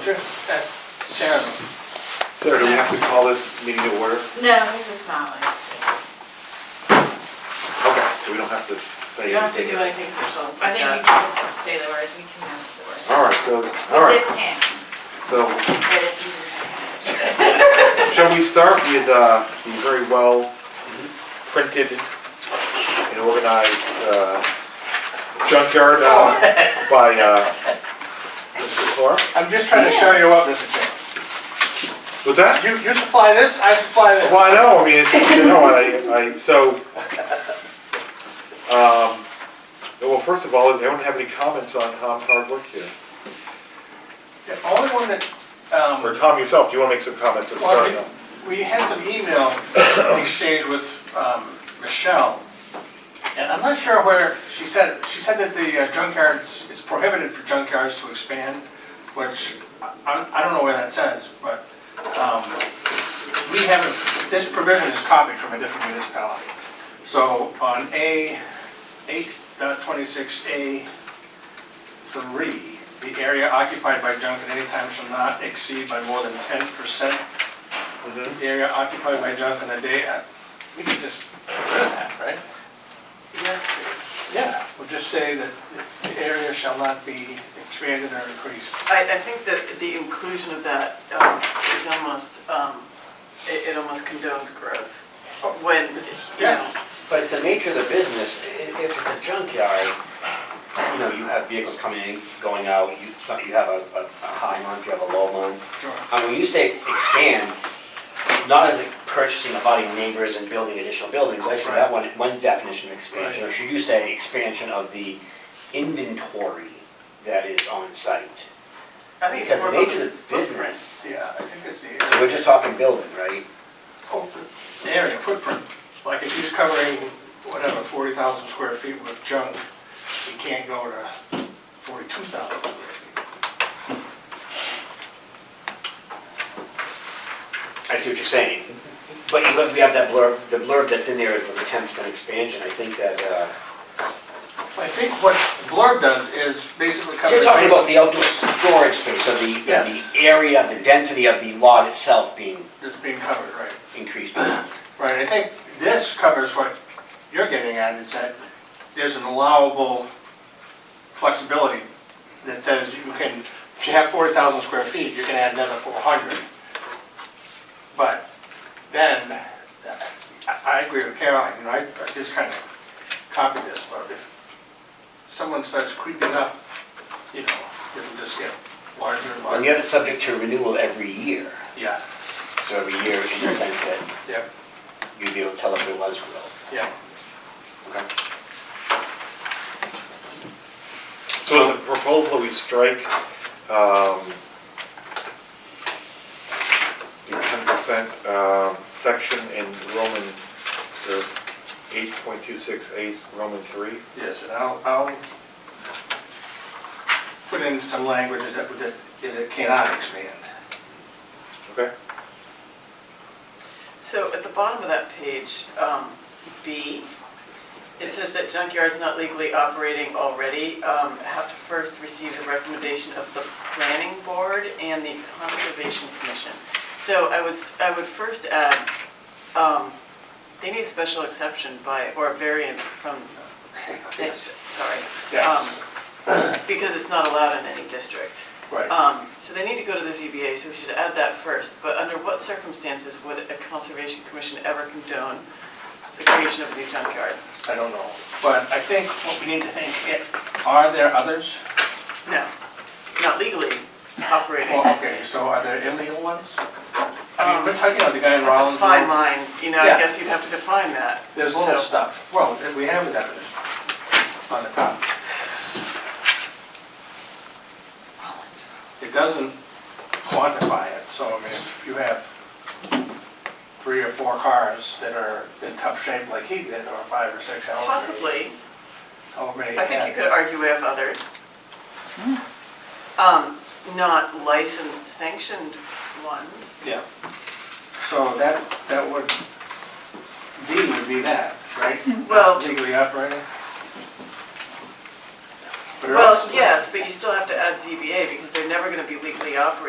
Sure, that's terrible. Sir, do we have to call this meeting to order? No, this is not like, Okay, so we don't have to say you don't have to anything. do anything official. I think you can just say the words, we can ask the words. All right, so, all With right, this hand. so Get it easy with that hand. shall we start with uh, the very well printed and organized uh, junkyard uh, Oh. by uh, Mr. Clark? I'm just trying to show you up, Mr. Chair. What's that? You, you supply this, I supply this. Well, I know, I mean, it's, you know, I, I, so, um, well, first of all, anyone have any comments on Tom's hard work here? The only one that, um, Or Tom yourself, do you want to make some comments at Well, start? We had some email exchange with um, Michelle, and I'm not sure where, she said, she said that the uh, junkyards, it's prohibited for junkyards to expand, which, I I don't know where that says, but um, we have, this provision is copied from a different municipality. So on A, 8.26A, 3, the area occupied by junk at any time shall not exceed by more than 10% Mhm. the area occupied by junk in the day, uh, we could just get rid of that, right? Yes, please. Yeah. We'll just say that the area shall not be expanded or increased. I, I think that the inclusion of that um, is almost, um, it, it almost condones growth. When, you Yeah. know, But it's the nature of the business, I- if it's a junkyard, you know, you have vehicles coming in, going out, you, some- you have a, a a high month, you have a low month. Sure. I mean, when you say expand, not as in purchasing, abutting neighbors and building additional buildings, I see that one, one definition of expansion. Or should you say expansion of the inventory that is on site? I think it's Because more the of nature a of the business, Yeah, I think it's the we're area, Oh, just talking building, right? the area footprint. Like if he's covering, whatever, forty thousand square feet with junk, he can't go to forty-two thousand square feet. I see what you're saying. But you look, we have that blurb, the blurb that's in there is the ten percent expansion, I think that, uh. I think what blurb does is basically So cover. you're talking about base- the outdoor storage space, of the, Yeah. of the area, the density of the lot itself being That's being covered, right? increased. Right, I think this covers what you're getting at, is that there's an allowable flexibility that says you can, if you have forty thousand square feet, you can add another four hundred. But then, I, I agree with Caroline, you know, I I just kind of copied this, but if someone starts creeping up, you know, it'll just get larger and And larger. you have it subject to renewal every year, Yeah, so every year in the sense that yeah, you'd be able to tell if there was growth. yeah. Okay. So is the proposal that we strike, um, the ten percent, um, section in Roman, or eight point two six A, Roman three? Yes, and I'll, I'll put in some languages that, that that it cannot expand. Okay, So at the bottom of that page, um, B, it says that junkyards not legally operating already um, have to first receive the recommendation of the planning board and the conservation commission. So I would, s- I would first add, um, they need a special exception by, or variance from, eh, sorry. Yes, um, Because it's not allowed in any district. right. Um, so they need to go to the ZBA, so we should add that first, but under what circumstances would a conservation commission ever condone the creation of a new junkyard? I don't know. But I think what we need to think, i- are there others? No, not legally operating. Well, okay, so are there illegal ones? I mean, Um, we're talking about the guy in That's a Rollins. fine line, you know, I Yeah. guess you'd have to define that. There's little So- stuff. Well, and we have that on the top. It doesn't quantify it, so I mean, if you have three or four cars that are in tough shape like he did, or five or six, however. Possibly, However many. I think you could argue we have others. Hmm. Um, not licensed sanctioned ones. Yeah. So that, that would, D would be that, right? Well- Legally operating. But it Well, also- yes, but you still have to add ZBA because they're never gonna be legally operating